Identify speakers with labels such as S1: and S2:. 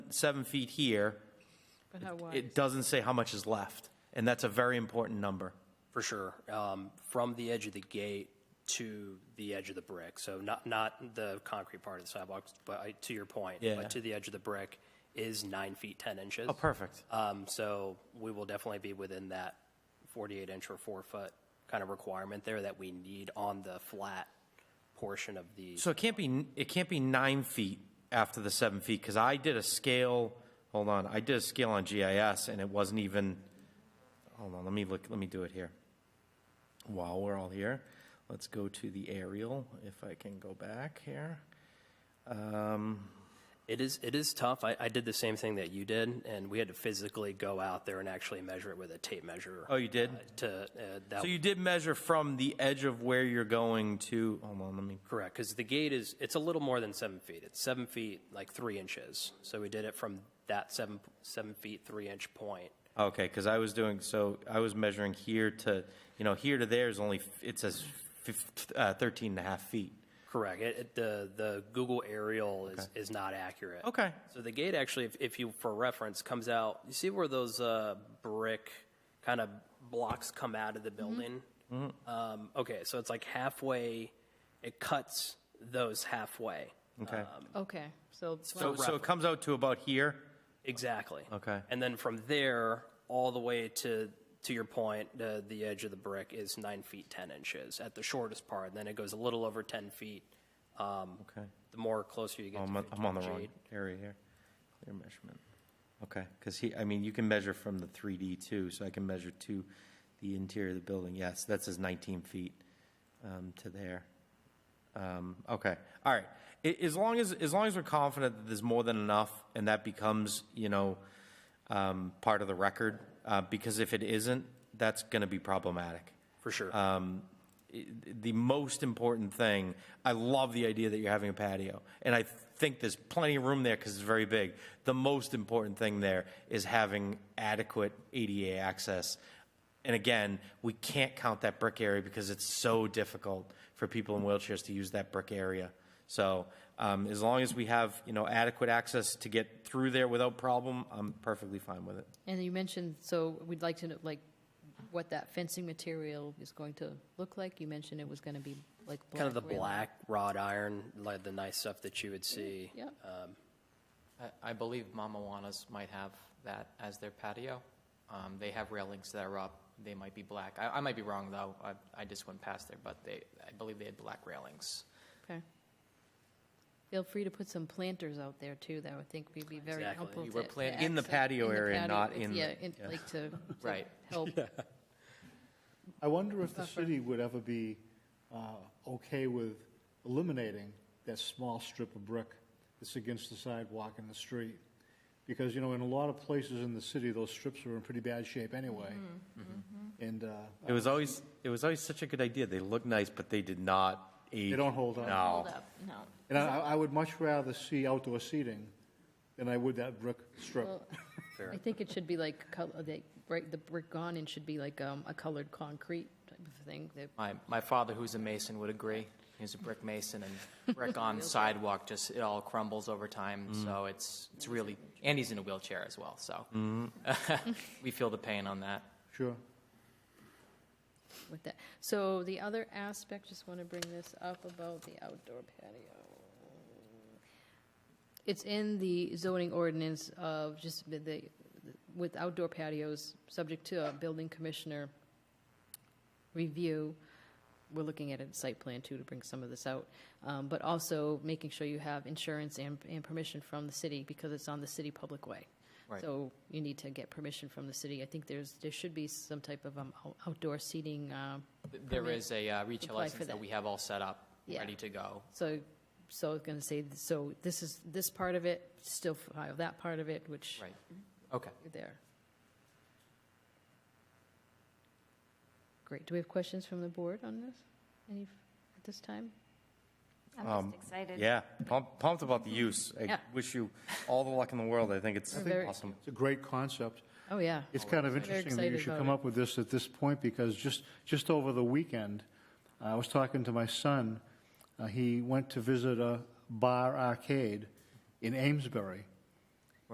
S1: seven feet here,
S2: But how wide?
S1: it doesn't say how much is left. And that's a very important number.
S3: For sure. Um, From the edge of the gate to the edge of the brick, so not, not the concrete part of the sidewalks, but I- to your point.
S1: Yeah.
S3: But to the edge of the brick is nine feet, 10 inches.
S1: Oh, perfect.
S3: Um, So we will definitely be within that 48-inch or four-foot kind of requirement there that we need on the flat portion of the,
S1: So it can't be, it can't be nine feet after the seven feet, because I did a scale, hold on, I did a scale on GIS, and it wasn't even, hold on, let me look, let me do it here. While we're all here, let's go to the aerial, if I can go back here.
S3: it is, it is tough. I, I did the same thing that you did, and we had to physically go out there and actually measure it with a tape measure.
S1: Oh, you did?
S3: uh, To, uh, that
S1: So you did measure from the edge of where you're going to, hold on, let me,
S3: Correct, because the gate is, it's a little more than seven feet. It's seven feet, like three inches. So we did it from that seven, seven feet, three inch point.
S1: okay, because I was doing, so I was measuring here to, you know, here to there is only, it says fif- uh, 13 and a half feet.
S3: Correct. It, it- the, the Google aerial is, is not accurate.
S1: Okay.
S3: So the gate actually, if, if you, for reference, comes out, you see where those, uh, brick kind of blocks come out of the building? Um, okay, so it's like halfway, it cuts those halfway.
S1: Okay.
S2: Okay, Um, so,
S1: So, so it comes out to about here?
S3: Exactly.
S1: Okay.
S3: And then from there, all the way to, to your point, the, the edge of the brick is nine feet, 10 inches at the shortest part. And then it goes a little over 10 feet. Um,
S1: Okay.
S3: The more closer you get
S1: Oh, I'm
S3: to
S1: on, I'm on the
S3: 15
S1: wrong
S3: feet.
S1: area here. Clear measurement. Okay, because he, I mean, you can measure from the 3D too, so I can measure to the interior of the building. Yes, that says 19 feet um, to there. Um, Okay, all right. A- As long as, as long as we're confident that there's more than enough and that becomes, you know, um, part of the record, uh, because if it isn't, that's going to be problematic.
S3: For sure.
S1: Uh, the most important thing. I love the idea that you're having a patio, and I think there's plenty of room there because it's very big. The most important thing there is having adequate ADA access. And again, we can't count that brick area because it's so difficult for people in wheelchairs to use that brick area. So um, as long as we have you know adequate access to get through there without problem, I'm perfectly fine with it.
S2: and you mentioned, so we'd like to know, like, what that fencing material is going to look like? You mentioned it was going to be like black.
S3: kind of the
S2: railing.
S3: black wrought iron, like the nice stuff that you would see.
S2: Yeah,
S4: I- I believe Mama Juana's might have that as their patio. Um, They have railings that are up, they might be black. I I might be wrong, though, I- I just went past there, but they, I believe they had black railings.
S2: okay. Feel free to put some planters out there too, that I would think would be very
S3: Exactly.
S2: helpful.
S4: You were
S2: to- to
S4: plant-
S1: In the
S2: access-
S1: patio
S2: in the
S1: area,
S2: patio,
S1: not
S2: it's-
S1: in the-
S2: Yeah, it- like to. to
S4: Right.
S2: Help,
S5: I wonder if the city would ever be uh, okay with eliminating that small strip of brick that's against the sidewalk and the street. Because, you know, in a lot of places in the city, those strips are in pretty bad shape anyway. And, uh,
S1: It was always it was always such a good idea. They look nice, but they did not. Age.
S5: They don't hold up.
S1: No.
S6: Hold up, no.
S5: and I, I would much rather see outdoor seating than I would that brick strip.
S2: Well, I think it should be like, col- uh, they- right, the brick gone in should be like um, a colored concrete type of thing. that-
S4: My, my father, who's a mason, would agree. He's a brick mason, and brick on sidewalk, just, it all crumbles over time, so it's, it's really, and he's in a wheelchair as well, so. We feel the pain on that.
S5: Sure.
S2: with that. So the other aspect, just want to bring this up about the outdoor patio. It's in the zoning ordinance of just the- the, with outdoor patios, subject to a building commissioner review. We're looking at a site plan too to bring some of this out, um, but also making sure you have insurance and, and permission from the city because it's on the city public way.
S4: Right.
S2: So you need to get permission from the city. I think there's, there should be some type of um, out- outdoor seating, um,
S4: There is a uh, retail
S2: Apply for
S4: license that
S2: that.
S4: we have all set up,
S2: Yeah.
S4: ready to go.
S2: So, so I was going to say, so this is, this part of it, still file that part of it, which
S4: Right, okay.
S2: you're there. Great. Do we have questions from the board on this? Any, at this time?
S6: I'm just excited.
S1: Yeah, pumped, pumped about the use. I
S2: Yeah.
S1: wish you all the luck in the world. I think it's
S2: very-
S1: awesome.
S5: It's a great concept.
S2: Oh, yeah.
S5: It's kind of
S2: Very
S5: interesting that you
S2: excited
S5: should
S2: about
S5: come
S2: it.
S5: up with this at this point, because just, just over the weekend, I was talking to my Uh, son. Uh, He went to visit a bar arcade in Amesbury,